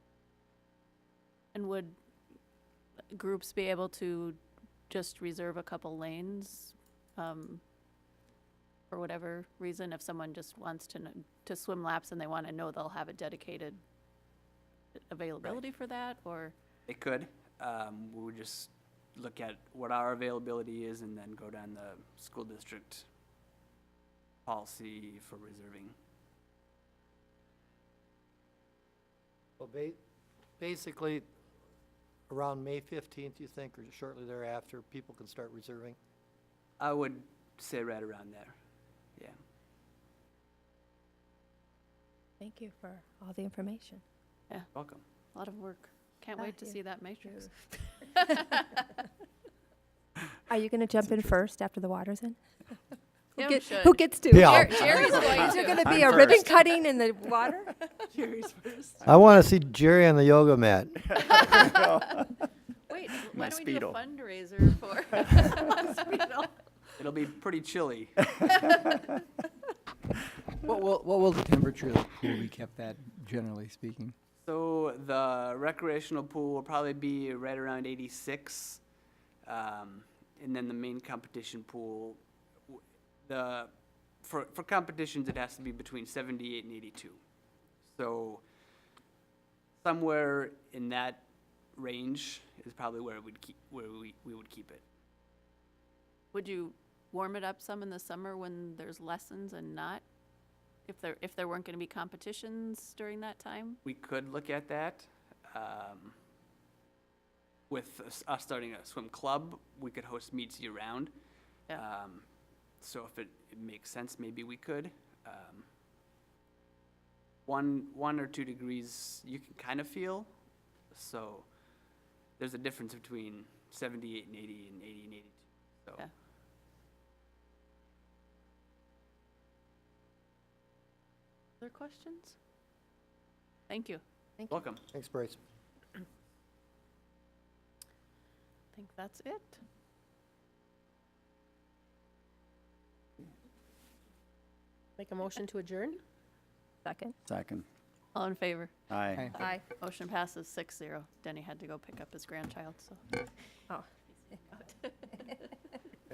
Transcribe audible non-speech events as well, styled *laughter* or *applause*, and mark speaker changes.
Speaker 1: would groups be able to just reserve a couple lanes? um, For whatever reason, if someone just wants to, kn- to swim laps and they want to know they'll have a dedicated availability for that, or?
Speaker 2: It could. Um, we would just look at what our availability is and then go down the school district policy for reserving.
Speaker 3: Well, ba- basically, around May fifteenth, you think, or shortly thereafter, people can start reserving?
Speaker 2: I would say right around there. Yeah.
Speaker 4: Thank you for all the information.
Speaker 2: Welcome.
Speaker 1: A lot of work. Can't
Speaker 4: Ah,
Speaker 1: wait to
Speaker 4: yeah.
Speaker 1: see that matrix. *laughs*
Speaker 4: Are you going to jump in first after the water's in? Who
Speaker 1: Tim
Speaker 4: get-
Speaker 1: should.
Speaker 4: Who gets to?
Speaker 3: Yeah.
Speaker 1: Jer- Jerry's going
Speaker 4: Is there going
Speaker 1: to.
Speaker 4: to be
Speaker 2: I'm
Speaker 4: a ribbon
Speaker 2: first.
Speaker 4: cutting in the water?
Speaker 2: Jerry's first.
Speaker 3: I want to see Jerry on the yoga mat.
Speaker 1: Wait,
Speaker 5: My
Speaker 1: why don't we do
Speaker 5: Speedo.
Speaker 1: a fundraiser for? *laughs* Speedo.
Speaker 2: It'll be pretty chilly.
Speaker 6: What will, what will the temperature of the pool be kept at, generally speaking?
Speaker 2: So the recreational pool will probably be right around 86. Um, and then the main competition pool, w- the, for, for competitions, it has to be between 78 and 82. So somewhere in that range is probably where we'd keep, where we, we would keep it.
Speaker 1: Would you warm it up some in the summer when there's lessons and not? If there, if there weren't going to be competitions during that time?
Speaker 2: We could look at that. Um, with us, us starting a swim club, we could host meets year round.
Speaker 1: Yeah.
Speaker 2: Um, so if it, it makes sense, maybe we could. Um, one, one or two degrees you can kind of feel. So there's a difference between 78 and 80 and 80 and 82. So
Speaker 1: Yeah. Other questions? Thank you.
Speaker 4: Thank you.
Speaker 2: welcome.
Speaker 3: Thanks, Bryce.
Speaker 1: I think that's it.
Speaker 7: Make a motion to adjourn?
Speaker 4: Second.
Speaker 5: Second.
Speaker 1: All in favor?
Speaker 5: Aye.
Speaker 6: Aye.
Speaker 4: Aye.
Speaker 1: Motion passes six zero. Denny had to go pick up his grandchild, so.
Speaker 4: Oh.